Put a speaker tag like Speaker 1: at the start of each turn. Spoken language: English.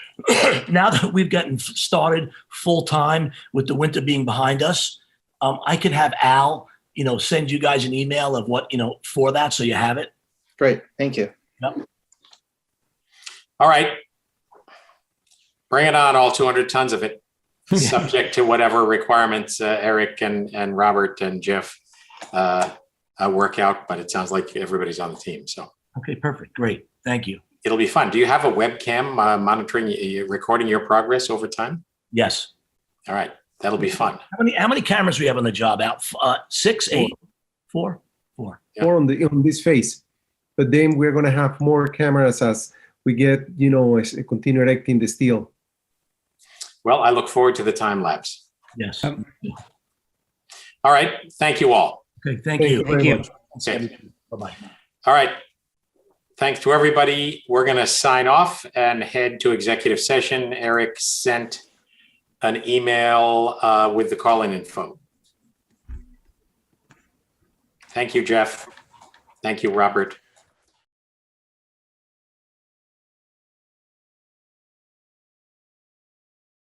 Speaker 1: now that we've gotten f- started full time with the winter being behind us, um, I could have Al, you know, send you guys an email of what, you know, for that. So you have it.
Speaker 2: Great, thank you.
Speaker 3: All right. Bring it on, all 200 tons of it, subject to whatever requirements uh, Eric and, and Robert and Jeff uh, uh, work out, but it sounds like everybody's on the team, so
Speaker 1: Okay, perfect. Great. Thank you.
Speaker 3: it'll be fun. Do you have a webcam uh, monitoring, uh, recording your progress over time?
Speaker 1: Yes.
Speaker 3: All right, that'll be fun.
Speaker 1: How many, how many cameras we have on the job out? F- Uh, six,
Speaker 4: Four.
Speaker 1: eight, four?
Speaker 3: Yeah.
Speaker 4: Or on the on this phase. But then we're gonna have more cameras as we get, you know, as continue erecting the steel.
Speaker 3: Well, I look forward to the time lapse.
Speaker 1: Yes.
Speaker 5: Um,
Speaker 3: All right, thank you all.
Speaker 1: Okay, thank you.
Speaker 4: very
Speaker 5: you.
Speaker 4: much.
Speaker 3: Okay.
Speaker 1: Bye-bye.
Speaker 3: All right. Thanks to everybody. We're going to sign off and head to executive session. Eric sent an email uh, with the call-in info. Thank you, Jeff. Thank you, Robert.